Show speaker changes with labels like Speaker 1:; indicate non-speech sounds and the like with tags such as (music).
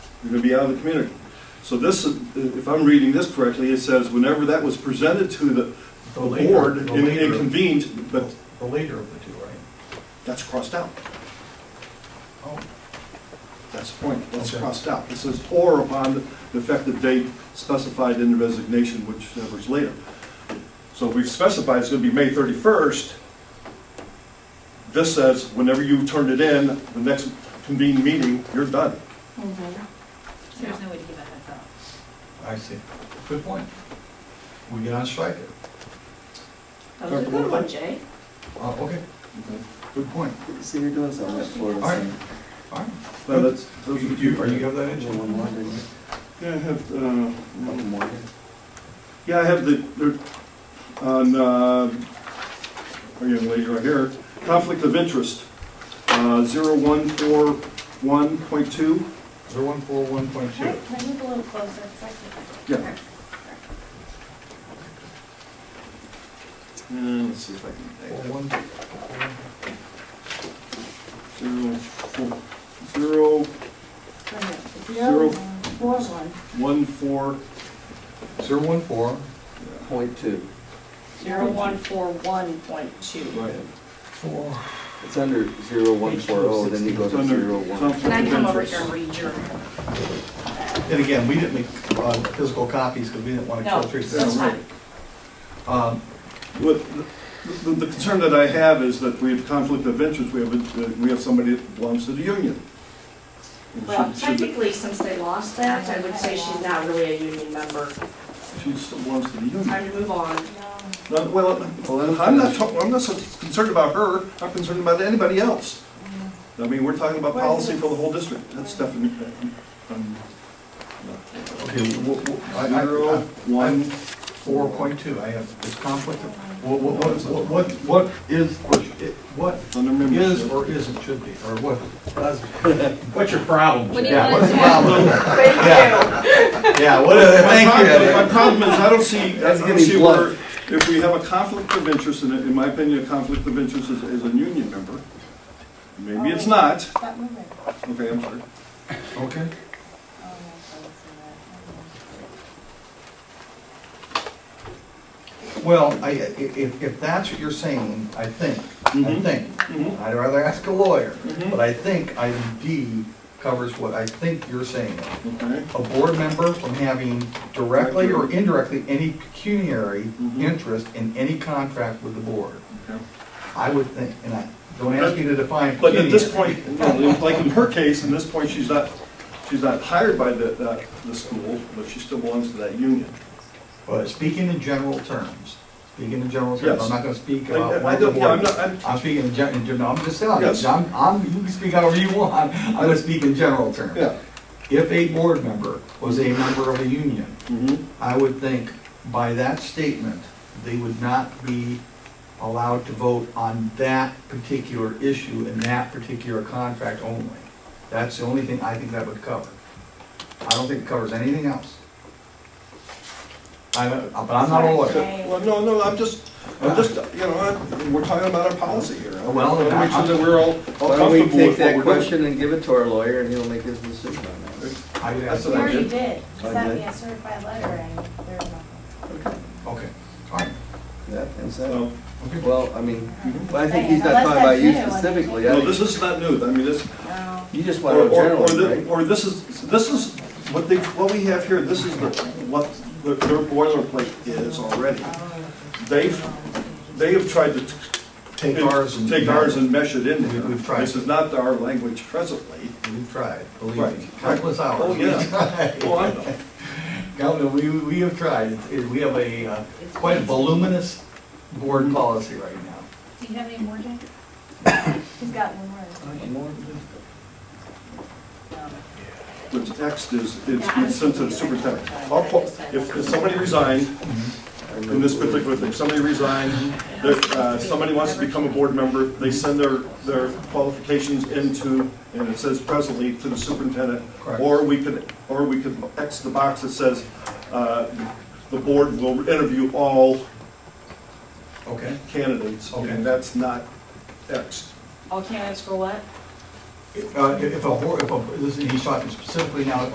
Speaker 1: You're going to be out of the community. So this, is- if I'm reading this correctly, it says, whenever that was presented to the the
Speaker 2: The later-
Speaker 1: board and
Speaker 2: the
Speaker 1: and
Speaker 2: later-
Speaker 1: convened, but
Speaker 2: The later of the two, right?
Speaker 1: that's crossed out.
Speaker 2: Oh,
Speaker 1: That's the point, that's
Speaker 2: Okay.
Speaker 1: crossed out. It says, or upon the effective date specified in the resignation, whichever is later. So we've specified it's gonna be May thirty-first. This says, whenever you turn it in, the next convened meeting, you're done.
Speaker 3: Mm-hmm. So there's no way to give a heads up.
Speaker 2: I see. Good point. We get on strike it.
Speaker 3: That was a good one, Jay.
Speaker 2: Uh, okay, good point.
Speaker 4: See, you're doing something that's for
Speaker 2: All right.
Speaker 4: us.
Speaker 2: All right.
Speaker 1: But that's,
Speaker 2: You,
Speaker 1: those are the
Speaker 2: you-
Speaker 1: two.
Speaker 2: are you have that in?
Speaker 4: Angel one more, didn't you?
Speaker 1: Yeah, I have, uh,
Speaker 4: One more.
Speaker 1: yeah, I have the, there- on, uh, our young lady right here, conflict of interest, uh, zero one four one point two.
Speaker 2: Zero one four one point two.
Speaker 5: Can I can I move a little closer? 'Cause I can't-
Speaker 1: Yeah. And let's see if I can.
Speaker 2: Four one.
Speaker 1: Zero, four, zero,
Speaker 5: Right here.
Speaker 1: Zero.
Speaker 5: Four one.
Speaker 1: one, four,
Speaker 2: Zero one four.
Speaker 4: Point two.
Speaker 3: Zero one four one point two.
Speaker 1: right.
Speaker 2: Four.
Speaker 4: It's under zero one four oh, then you go
Speaker 1: It's
Speaker 4: to
Speaker 1: under
Speaker 4: zero one.
Speaker 1: conflict
Speaker 3: Can I
Speaker 1: of
Speaker 3: come over
Speaker 1: interest.
Speaker 3: here and read your?
Speaker 2: And again, we didn't make, uh, physical copies because we didn't want to
Speaker 3: No,
Speaker 2: kill three
Speaker 3: that's
Speaker 2: stamps.
Speaker 3: fine.
Speaker 2: Um,
Speaker 1: What, the, the- the concern that I have is that we have conflict of interest, we have, a- uh, we have somebody that belongs to the union. And
Speaker 3: Well,
Speaker 1: should- should-
Speaker 3: technically, since they lost that, I would say she's not really a union member.
Speaker 1: She still belongs to the union.
Speaker 3: Time to move on.
Speaker 1: Not- Well, I'm not, talk- I'm not so concerned about her, I'm concerned about anybody else. I mean, we're talking about policy for the whole district, that's definitely, um,
Speaker 2: okay, wh- wh- I- I-
Speaker 1: zero,
Speaker 2: I-
Speaker 1: one,
Speaker 2: Four point two, I have this conflict of, what, what, what, what, what is, what
Speaker 1: under membership.
Speaker 2: is or isn't should be, or what? (laughs)
Speaker 6: What's your problem?
Speaker 3: What do you
Speaker 2: Yeah,
Speaker 3: want
Speaker 2: what's
Speaker 3: to
Speaker 2: the
Speaker 3: do?
Speaker 2: problem?
Speaker 3: (laughs) Thank you.
Speaker 2: Yeah, what, is-
Speaker 1: My problem- My
Speaker 2: thank you.
Speaker 1: problem is, I don't see, I
Speaker 4: That's
Speaker 1: don't
Speaker 4: getting
Speaker 1: see where,
Speaker 4: blunt.
Speaker 1: if we have a conflict of interest, and in my opinion, a conflict of interest is, is a union member. Maybe it's not,
Speaker 5: That moving.
Speaker 1: okay, I'm sorry.
Speaker 2: Okay, well, I, i- if, if that's what you're saying, I think, I
Speaker 1: Mhm.
Speaker 2: think,
Speaker 1: Mhm.
Speaker 2: I'd rather ask a lawyer,
Speaker 1: Mhm.
Speaker 2: but I think item D covers what I think you're saying.
Speaker 1: Okay,
Speaker 2: a board member from having directly or indirectly any pecuniary
Speaker 1: Mhm.
Speaker 2: interest in any contract with the board.
Speaker 1: okay.
Speaker 2: I would think, and I, don't ask me to define
Speaker 1: But at this
Speaker 2: pecuniary.
Speaker 1: point, you know, like in her case, in this point, she's not, she's not hired by the, the, the school, but she still belongs to that union.
Speaker 2: But speaking in general terms, speaking in general terms,
Speaker 1: Yes.
Speaker 2: I'm not gonna speak
Speaker 1: I- I-
Speaker 2: about
Speaker 1: I
Speaker 2: one of the
Speaker 1: don't- yeah, I'm
Speaker 2: board.
Speaker 1: not- I'm-
Speaker 2: I'm speaking in gen, in gen- I'm just telling
Speaker 1: Yes.
Speaker 2: you, I'm, I'm, you can speak however you want, I'm gonna speak in general terms.
Speaker 1: Yeah.
Speaker 2: If a board member was a member of a union,
Speaker 1: Mhm.
Speaker 2: I would think by that statement, they would not be allowed to vote on that particular issue and that particular contract only. That's the only thing I think that would cover. I don't think it covers anything else. I, don't- but I'm not a lawyer.
Speaker 1: Well, no, no, I'm just, I'm just, you know, I- we're talking about our policy here. I
Speaker 2: Well,
Speaker 1: wanna Make sure
Speaker 2: I-
Speaker 1: that we're all all
Speaker 4: Why don't we
Speaker 1: comfortable with
Speaker 4: take
Speaker 1: what
Speaker 4: that
Speaker 1: we're doing.
Speaker 4: question and give it to our lawyer and he'll make his decision on that?
Speaker 2: I would
Speaker 1: That's
Speaker 2: ask,
Speaker 5: You
Speaker 1: what I
Speaker 5: already
Speaker 1: did.
Speaker 5: did. You
Speaker 4: I
Speaker 5: sent
Speaker 4: did.
Speaker 5: me a certified letter and there's nothing.
Speaker 2: okay, all right,
Speaker 4: That, is that,
Speaker 1: So,
Speaker 2: okay.
Speaker 4: well, I mean,
Speaker 5: Mhm.
Speaker 4: well, I think he's not
Speaker 5: Unless
Speaker 4: talking about
Speaker 5: that's
Speaker 4: you
Speaker 5: new, I mean,
Speaker 4: specifically. I
Speaker 1: mm-hmm. No,
Speaker 4: think-
Speaker 1: this is not new, I mean, this,
Speaker 5: No.
Speaker 4: You just
Speaker 1: Or,
Speaker 4: want to know
Speaker 1: or, or thi-
Speaker 4: generally, right?
Speaker 1: or this is, this is, what they, what we have here, this is the, what the- their boilerplate is already. They've, they have tried to. t-
Speaker 2: Take ours and.
Speaker 1: Take ours and mesh it in
Speaker 2: We-
Speaker 1: here.
Speaker 2: we've tried.
Speaker 1: This is not our language presently.
Speaker 2: We've tried, believe me,
Speaker 1: Right.
Speaker 2: countless hours.
Speaker 1: Oh,
Speaker 2: (laughs)
Speaker 1: yeah.
Speaker 2: We've tried.
Speaker 1: Well, I know.
Speaker 2: Governor, we, we have tried, It's- it- we have a, uh, quite a voluminous board policy right now.
Speaker 5: Do you have any more, Jay? He's got one more.
Speaker 1: The text is, it's it's sensitive, super text. I'll po- If, if somebody resigned, in this particular thing, somebody resigned, there- uh, somebody wants to become a board member, they send their, their qualifications into, and it says presently, to the superintendent.
Speaker 2: Correct.
Speaker 1: Or we could, or we could X the box that says, uh, the board will interview all
Speaker 2: Okay.
Speaker 1: candidates,
Speaker 2: Okay.
Speaker 1: and that's not X.
Speaker 3: All candidates for what?
Speaker 2: If, uh, if a, board- if a, this is, he's talking specifically now